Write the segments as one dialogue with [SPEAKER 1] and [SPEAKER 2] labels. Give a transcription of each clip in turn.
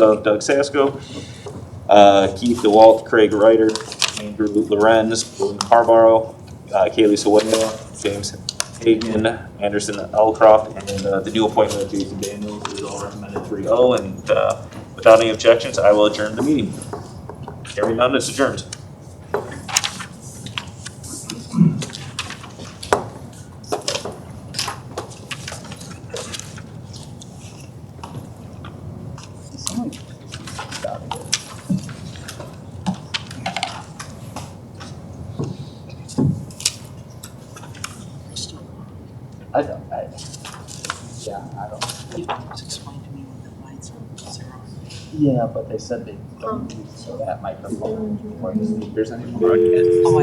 [SPEAKER 1] of Doug Sasko, uh, Keith DeWalt, Craig Ryder, Andrew Lorenz, William Harborough, uh, Kaylee Sawada, James Hagan, Anderson Elcroft, and uh, the new appointment of Jason Daniels is all recommended 3-0. And uh, without any objections, I will adjourn the meeting. Hearing none, it's adjourned.
[SPEAKER 2] I don't, I, yeah, I don't,
[SPEAKER 3] You just explain to me what that line's on, zero.
[SPEAKER 2] yeah, but they said they don't use that microphone or the speakers anymore.
[SPEAKER 3] Oh,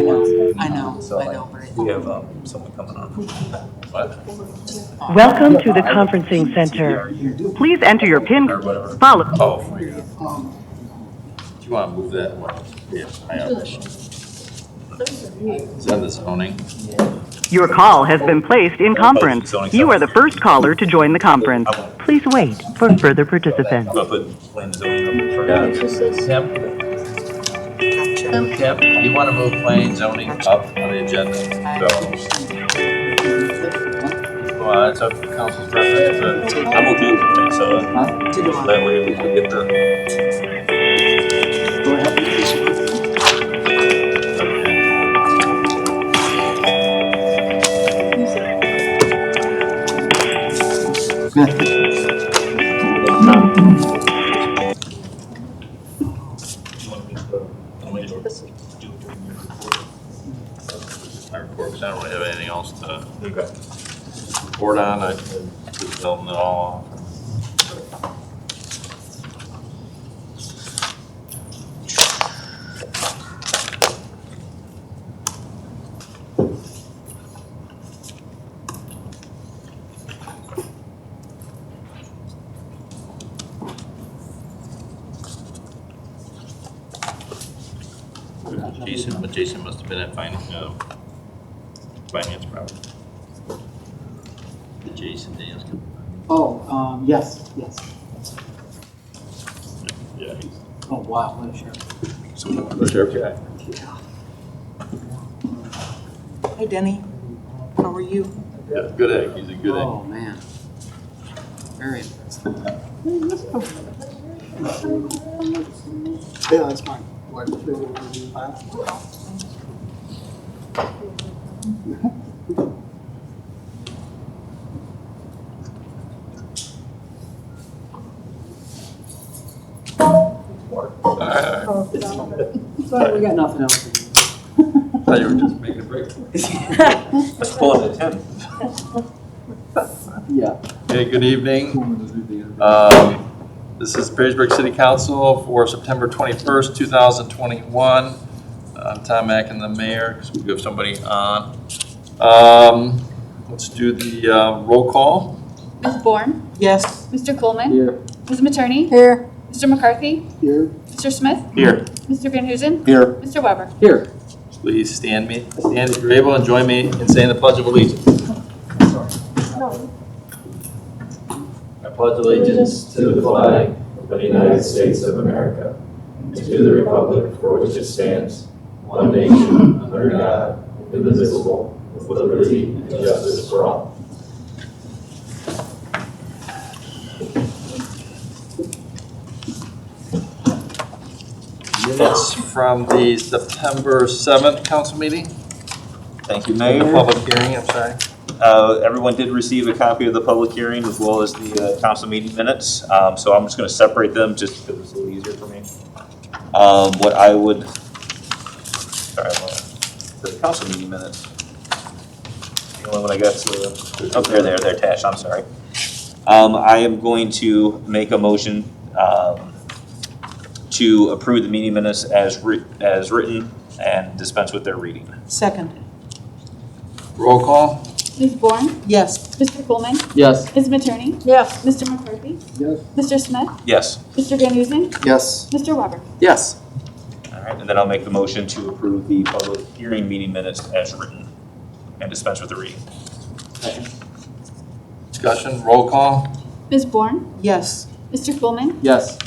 [SPEAKER 3] I know, I know,
[SPEAKER 2] So,
[SPEAKER 3] I
[SPEAKER 2] like,
[SPEAKER 3] know, but
[SPEAKER 1] We have um, someone coming on.
[SPEAKER 4] Welcome to the conferencing center. Please enter your PIN,
[SPEAKER 2] Or whatever.
[SPEAKER 4] followed
[SPEAKER 5] Oh, my God. Do you want to move that one? Yeah, I am. Is that the zoning?
[SPEAKER 4] Your call has been placed in conference. You are the first caller to join the conference.
[SPEAKER 5] Oh.
[SPEAKER 4] Please wait for further participants.
[SPEAKER 1] I'm going to put plan zoning up for that.
[SPEAKER 2] Tim,
[SPEAKER 3] I.
[SPEAKER 2] Tim, you want to move planning zoning up on the agenda?
[SPEAKER 5] Well, it's up to council's preference,
[SPEAKER 1] I'm okay with that, so uh,
[SPEAKER 2] Huh?
[SPEAKER 1] that way we can get the.
[SPEAKER 2] Go ahead.
[SPEAKER 1] You want me to, you want me to do it during your report?
[SPEAKER 5] but my report, because I don't really have anything else to report on. I just building it all off. Jason, but Jason must have been at finance, uh, finance probably. Did Jason Daniels come?
[SPEAKER 6] Oh, um, yes, yes.
[SPEAKER 5] Yeah, he's.
[SPEAKER 6] Oh, wow, what a shirt.
[SPEAKER 5] The sheriff guy.
[SPEAKER 3] Hi Denny, how are you?
[SPEAKER 5] Yeah, good egg, he's a good egg.
[SPEAKER 6] Oh, man. Very impressive. Yeah, that's mine. What, three, five?
[SPEAKER 5] Alright, alright.
[SPEAKER 6] Sorry, we got nothing else. to do.
[SPEAKER 5] Thought you were just making a break.
[SPEAKER 1] Let's pull it at ten.
[SPEAKER 6] Yeah.
[SPEAKER 5] Okay, good evening. Um, This is Perrysburg City Council for September 21st, 2021. I'm Tom Mackin, the mayor, because we do have somebody on. Um, Let's do the uh, roll call.
[SPEAKER 7] Ms. Bourne,
[SPEAKER 3] Yes.
[SPEAKER 7] Mr. Coleman,
[SPEAKER 6] Here,
[SPEAKER 7] Ms. Materney,
[SPEAKER 3] Here.
[SPEAKER 7] Mr. McCarthy,
[SPEAKER 6] here,
[SPEAKER 7] Mr. Smith,
[SPEAKER 5] Here.
[SPEAKER 7] Mr. Van Huzen,
[SPEAKER 5] Here.
[SPEAKER 7] Mr. Weber.
[SPEAKER 6] here.
[SPEAKER 5] Please stand me, stand if you're able, and join me in saying the Pledge of Allegiance.
[SPEAKER 8] I pledge allegiance to the flag of the United States of America and to the republic for which it stands, one nation, under God, indivisible, with liberty and justice for all.
[SPEAKER 5] Minutes from the September 7th council meeting,
[SPEAKER 1] Thank you,
[SPEAKER 5] the
[SPEAKER 1] Mayor.
[SPEAKER 5] public hearing, I'm sorry.
[SPEAKER 1] Uh, Everyone did receive a copy of the public hearing as well as the uh, council meeting minutes. Um, So I'm just going to separate them just because it's a little easier for me. Um, What I would, sorry, I'm on the council meeting minutes. The only one I got to, oh, there, there, they're attached, I'm sorry. Um, I am going to make a motion um, to approve the meeting minutes as writ, as written and dispense with their reading.
[SPEAKER 3] Second.
[SPEAKER 5] Roll call.
[SPEAKER 7] Ms. Bourne,
[SPEAKER 3] Yes.
[SPEAKER 7] Mr. Coleman,
[SPEAKER 6] Yes.
[SPEAKER 7] Ms. Materney,
[SPEAKER 3] Yes.
[SPEAKER 7] Mr. McCarthy,
[SPEAKER 6] Yes.
[SPEAKER 7] Mr. Smith,
[SPEAKER 1] Yes.
[SPEAKER 7] Mr. Van Huzen,
[SPEAKER 6] Yes.
[SPEAKER 7] Mr. Weber.
[SPEAKER 6] Yes.
[SPEAKER 1] All right, and then I'll make the motion to approve the public hearing meeting minutes as written and dispense with the reading.
[SPEAKER 5] Discussion, roll call.
[SPEAKER 7] Ms. Bourne,
[SPEAKER 3] Yes.
[SPEAKER 7] Mr. Coleman,
[SPEAKER 6] Yes.